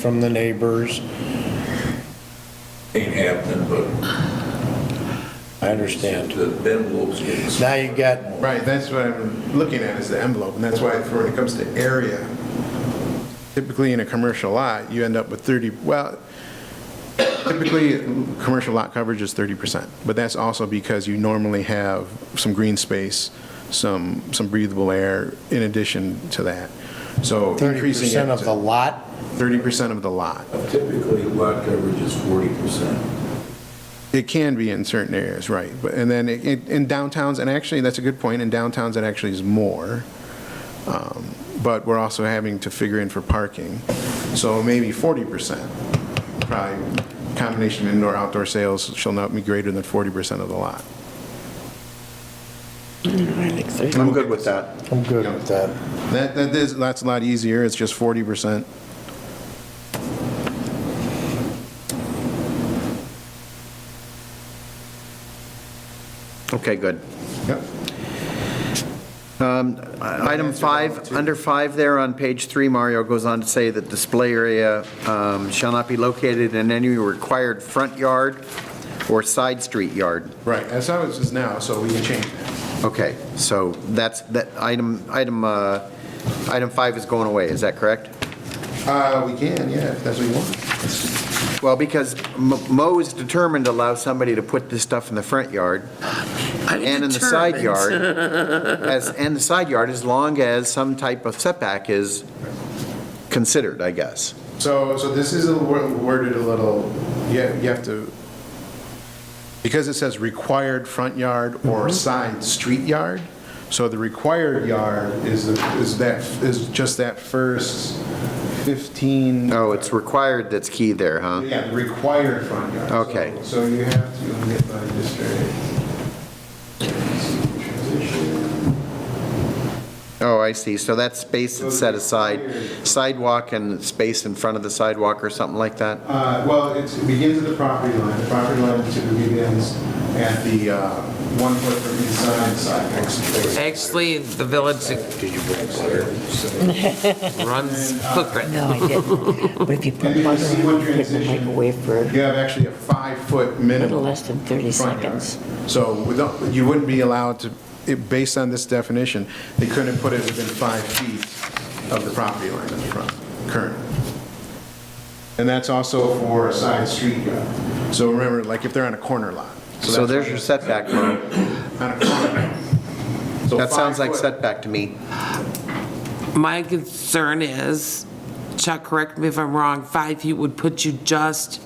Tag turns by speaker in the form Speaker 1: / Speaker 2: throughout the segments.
Speaker 1: from the neighbors.
Speaker 2: ain't happening, but
Speaker 1: I understand.
Speaker 2: the envelope's getting.
Speaker 1: Now you got,
Speaker 3: Right, that's what I'm looking at is the envelope, and that's why for when it comes to area, typically in a commercial lot, you end up with 30, well, typically, commercial lot coverage is 30%, but that's also because you normally have some green space, some, some breathable air in addition to that. So increasing it
Speaker 1: 30% of
Speaker 3: to
Speaker 1: the lot,
Speaker 3: 30% of the lot.
Speaker 2: Typically, lot coverage is forty percent.
Speaker 3: It can be in certain areas, right. But, and then it- it- in downtowns, and actually, that's a good point, in downtowns, it actually is more. Um, But we're also having to figure in for parking. So maybe 40%, probably combination of indoor-outdoor sales shall not be greater than 40% of the lot.
Speaker 4: I'm good with that.
Speaker 1: I'm good with that.
Speaker 3: That, that is, that's a lot easier, it's just 40%.
Speaker 4: Okay, good. Um,
Speaker 3: Yep.
Speaker 4: Item five, under five there on page three, Mario goes on to say that display area um, shall not be located in any required front yard or side street yard.
Speaker 3: Right, that's how it is now, so we can change that.
Speaker 4: Okay, so that's, that item, item, uh, item five is going away, is that correct?
Speaker 3: Uh, we can, yeah, if that's what you want.
Speaker 4: Well, because M- Mo is determined to allow somebody to put this stuff in the front yard and in the side yard, as, and the side yard, as long as some type of setback is considered, I guess.
Speaker 3: So, so this is a wor- worded a little, you have, you have to, because it says required front yard or side street yard, so the required yard is, the- is that, is just that first 15.
Speaker 4: Oh, it's required that's key there, huh?
Speaker 3: Yeah, required front yard.
Speaker 4: Okay.
Speaker 3: So so you have to, let me get my district.
Speaker 4: Oh, I see, so that's space that's set aside, sidewalk and space in front of the sidewalk or something like that?
Speaker 3: Uh, Well, it's- it begins at the property line. The property line typically begins at the uh, one foot from inside sidewalk.
Speaker 5: Actually, the village runs footprint.
Speaker 6: No, I didn't. But if you put
Speaker 3: And you
Speaker 6: water
Speaker 3: see
Speaker 6: on,
Speaker 3: what
Speaker 6: you put the
Speaker 3: transition-
Speaker 6: microwave for,
Speaker 3: You have actually a five-foot minimum.
Speaker 6: Little less than 30
Speaker 3: front yard.
Speaker 6: seconds.
Speaker 3: So without- you wouldn't be allowed to, it- based on this definition, they couldn't put it within five feet of the property line in the front, currently. And that's also for a side street yard. So remember, like if they're on a corner lot.
Speaker 4: So
Speaker 3: that's why
Speaker 4: there's your setback, Mo.
Speaker 3: On a corner. So
Speaker 4: That sounds
Speaker 3: five
Speaker 4: like
Speaker 3: foot.
Speaker 4: setback to me.
Speaker 5: My concern is, Chuck, correct me if I'm wrong, five feet would put you just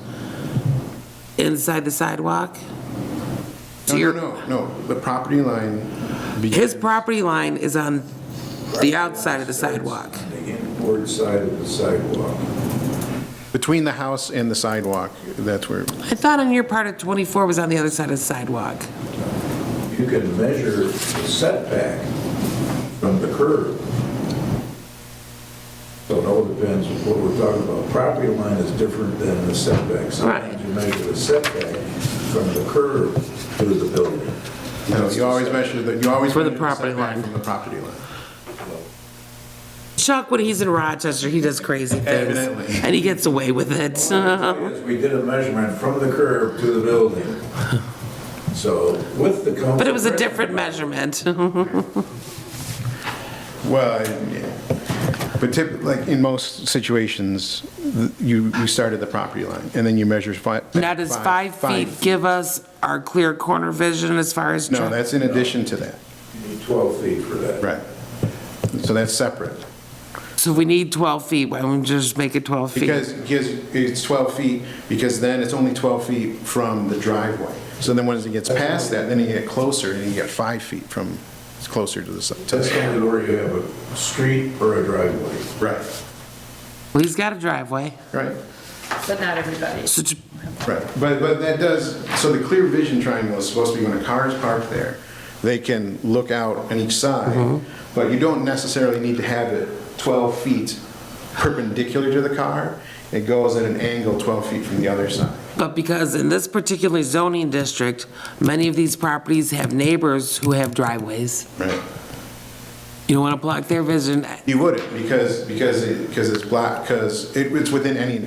Speaker 5: inside the sidewalk?
Speaker 3: No,
Speaker 5: So you're-
Speaker 3: No, no, no, the property line.
Speaker 5: His property line is on the outside of the sidewalk.
Speaker 2: The inboard side of the sidewalk.
Speaker 3: Between the house and the sidewalk, that's where,
Speaker 5: I thought on your part of 24 was on the other side of the sidewalk.
Speaker 2: You can measure the setback from the curb. So it all depends on what we're talking about. Property line is different than the setback. Sometimes
Speaker 5: Right.
Speaker 2: you measure the setback from the curb to the building.
Speaker 3: no, you always measure, the- you always.
Speaker 5: For the
Speaker 3: measure
Speaker 5: property
Speaker 3: setback
Speaker 5: line.
Speaker 3: From the property line.
Speaker 5: Chuck, when he's in Rochester, he does crazy things.
Speaker 3: Evidently.
Speaker 5: And he gets away with it. Uh-huh.
Speaker 2: Yes, we did a measurement from the curb to the building. So with the.
Speaker 5: But it was a different measurement.
Speaker 3: Well, yeah. But typically, like, in most situations, th- you, you start at the property line, and then you measure five.
Speaker 5: Now, does five feet give us our clear corner vision as far as?
Speaker 3: No,
Speaker 5: tra-
Speaker 3: that's in addition to that,
Speaker 2: You need 12 feet for that.
Speaker 3: right. So that's separate.
Speaker 5: So we need 12 feet, why don't we just make it 12 feet?
Speaker 3: Because, because it's 12 feet, because then it's only 12 feet from the driveway. So then once it gets past that, then you get closer, and you get five feet from, it's closer to the, s- to
Speaker 2: That's
Speaker 3: the,
Speaker 2: only where you have a street or a driveway.
Speaker 3: right,
Speaker 5: Well, he's got a driveway,
Speaker 3: right.
Speaker 7: But not everybody.
Speaker 5: so ju-
Speaker 3: Right, but, but that does, so the clear vision triangle is supposed to be when a car is parked there, they can look out on each side, but you don't necessarily need to have it 12 feet perpendicular to the car, it goes at an angle 12 feet from the other side.
Speaker 5: but because in this particular zoning district, many of these properties have neighbors who have driveways.
Speaker 3: Right.
Speaker 5: You don't want to block their vision,
Speaker 3: You wouldn't, because, because, it- because it's black, because it- it's within any